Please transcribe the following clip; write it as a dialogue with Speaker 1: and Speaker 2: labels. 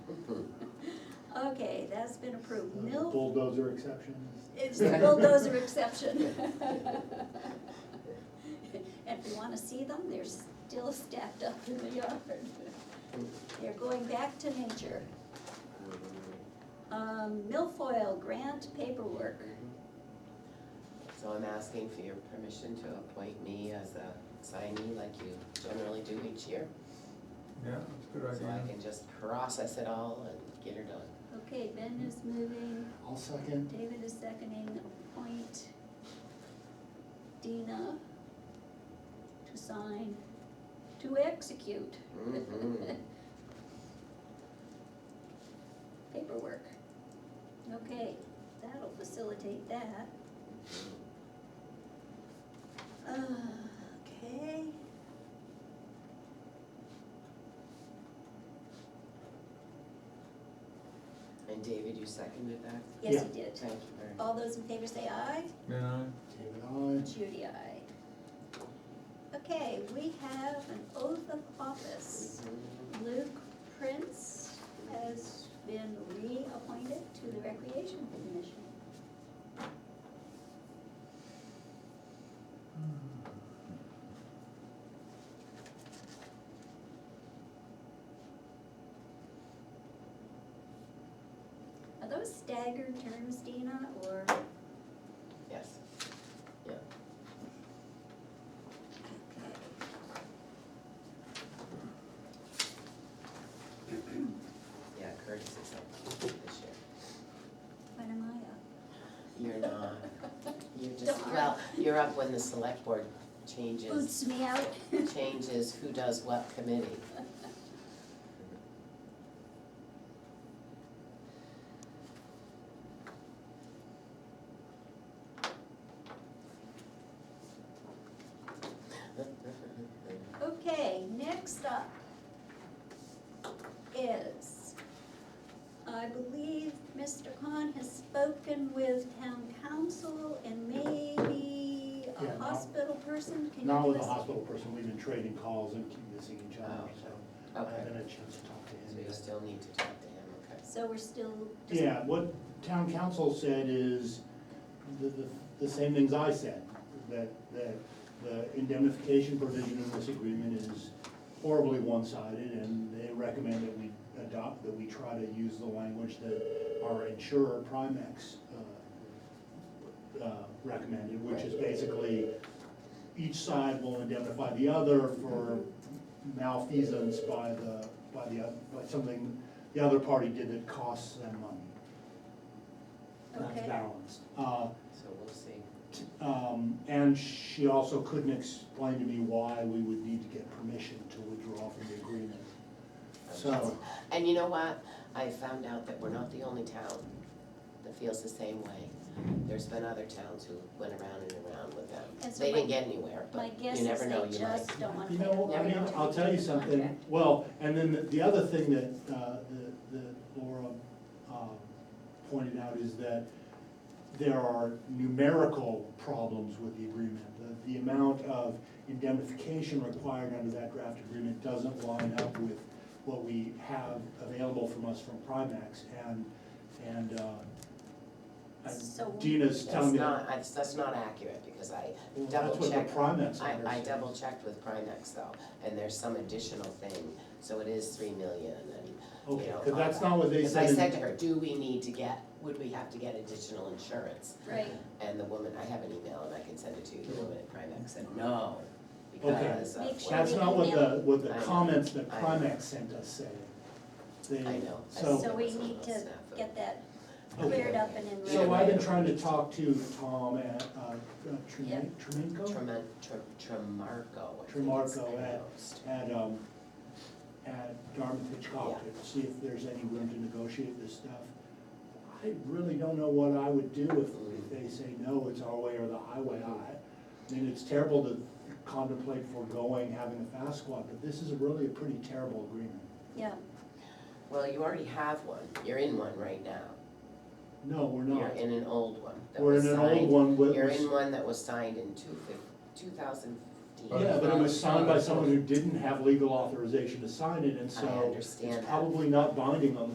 Speaker 1: Okay, that's been approved. Mill,
Speaker 2: Uh, Bulldozer exception.
Speaker 1: it's the bulldozer exception. And if you wanna see them, they're still stacked up in the yard. They're going back to nature. Um, milfoil grant paperwork.
Speaker 3: So I'm asking for your permission to appoint me as a signee like you generally do each year.
Speaker 4: Yeah, that's a good
Speaker 3: So I
Speaker 4: idea.
Speaker 3: can just process it all and get her done.
Speaker 1: Okay, Ben is moving,
Speaker 2: I'll second.
Speaker 1: David is seconding, appoint Dina to sign, to execute Mm-hmm.
Speaker 3: Mhm.
Speaker 1: paperwork. Okay, that'll facilitate that. Uh, Okay.
Speaker 3: And David, you seconded that?
Speaker 1: Yes,
Speaker 2: Yeah.
Speaker 1: he did.
Speaker 3: Thank you very much.
Speaker 1: All those in favor say aye.
Speaker 4: Yeah,
Speaker 2: David, aye.
Speaker 1: Judy, aye. Okay, we have an oath of office. Luke Prince has been reappointed to the Recreation Commission. Are those staggered terms, Dina, or?
Speaker 3: Yes. Yeah. Yeah, Curtis is up this year.
Speaker 1: When am I
Speaker 3: You're not, you're just,
Speaker 1: Darn.
Speaker 3: well, you're up when the select board
Speaker 1: up?
Speaker 3: changes,
Speaker 1: Boots me out.
Speaker 3: changes who does what committee.
Speaker 1: Okay, next up is, I believe Mr. Khan has spoken with town council and maybe
Speaker 2: Yeah,
Speaker 1: a
Speaker 2: no.
Speaker 1: hospital person, can you
Speaker 2: Now with
Speaker 1: give
Speaker 2: the
Speaker 1: us-
Speaker 2: hospital person, we've been trading calls and keep missing each other, so I
Speaker 3: Oh, Okay,
Speaker 2: haven't had a chance to talk to
Speaker 3: so
Speaker 2: him
Speaker 3: you
Speaker 2: yet.
Speaker 3: still need to talk to him, okay.
Speaker 1: So we're still. just-
Speaker 2: Yeah, what town council said is the, the, the same things I said, that, that the indemnification provision in this agreement is horribly one-sided, and they recommend that we adopt, that we try to use the language that our insurer Primex, uh, uh, recommended, which is basically each side will indemnify the other for malfeasance by the, by the, oth- by something the other party did that costs them money. That's
Speaker 1: Okay.
Speaker 2: balanced. Uh,
Speaker 3: So we'll see.
Speaker 2: t- um, and she also couldn't explain to me why we would need to get permission to withdraw from the agreement. So,
Speaker 3: And you know what? I found out that we're not the only town that feels the same way. There's been other towns who went around and around with them.
Speaker 1: And so
Speaker 3: They didn't
Speaker 1: my-
Speaker 3: get anywhere,
Speaker 1: My
Speaker 3: but
Speaker 1: guess is
Speaker 3: you never know,
Speaker 1: they
Speaker 3: you might.
Speaker 1: just don't want to
Speaker 2: you
Speaker 1: pay the
Speaker 2: know,
Speaker 3: Never
Speaker 1: lawyer.
Speaker 3: know.
Speaker 2: I'll tell you something,
Speaker 1: Contract.
Speaker 2: well, and then the- the other thing that, uh, the- that Laura, um, pointed out is that there are numerical problems with the agreement. The, the amount of indemnification required under that draft agreement doesn't line up with what we have available from us from Primex and, and, uh, and
Speaker 1: So-
Speaker 2: Gina's telling
Speaker 3: That's
Speaker 2: me.
Speaker 3: not, that's, that's not accurate because I
Speaker 2: Well,
Speaker 3: double checked.
Speaker 2: That's what the Primex
Speaker 3: I, I
Speaker 2: understands.
Speaker 3: double checked with Primex though, and there's some additional thing, so it is three million and, you
Speaker 2: Okay,
Speaker 3: know.
Speaker 2: cause that's not what they
Speaker 3: Because
Speaker 2: said.
Speaker 3: I
Speaker 2: in-
Speaker 3: said to her, do we need to get, would we have to get additional insurance?
Speaker 1: Right,
Speaker 3: And the woman, I have an email and I can send it to you, the woman at Primex said, no, because of.
Speaker 1: Make sure
Speaker 3: what-
Speaker 2: That's not what the, what the
Speaker 3: I know.
Speaker 2: comments that
Speaker 3: I know.
Speaker 2: Primex sent us said. They-
Speaker 3: I know. I
Speaker 2: So-
Speaker 1: so
Speaker 3: said
Speaker 1: we
Speaker 3: it's a
Speaker 1: need
Speaker 3: little
Speaker 1: to
Speaker 3: snafu.
Speaker 1: get that
Speaker 2: Okay.
Speaker 1: cleared up and in.
Speaker 2: So
Speaker 3: Yeah.
Speaker 2: I've been trying to talk to Tom at, uh,
Speaker 1: Yeah.
Speaker 2: Tremen- Tremenco,
Speaker 3: Tremen, Tre, Tremarco, I think it's
Speaker 2: Tremarco, eh.
Speaker 3: pronounced.
Speaker 2: at, um, at Dartmouth Hitchcock to see if there's any room to negotiate this stuff. I really don't know what I would do if, if
Speaker 3: Mm-hmm.
Speaker 2: they say, no, it's our way or the highway. I, I mean, it's terrible to contemplate foregoing having a fast squad, but this is really a pretty terrible agreement.
Speaker 1: Yeah,
Speaker 3: Well, you already have one, you're in one right now,
Speaker 2: No, we're
Speaker 3: you're
Speaker 2: not.
Speaker 3: in an old one that
Speaker 2: We're
Speaker 3: was
Speaker 2: in an
Speaker 3: signed.
Speaker 2: old one with.
Speaker 3: You're in one that was signed in two fif- two thousand fifteen.
Speaker 2: Yeah, but it was signed by someone who didn't have legal authorization to sign it, and
Speaker 3: I
Speaker 2: so it's
Speaker 3: understand that.
Speaker 2: probably not binding on the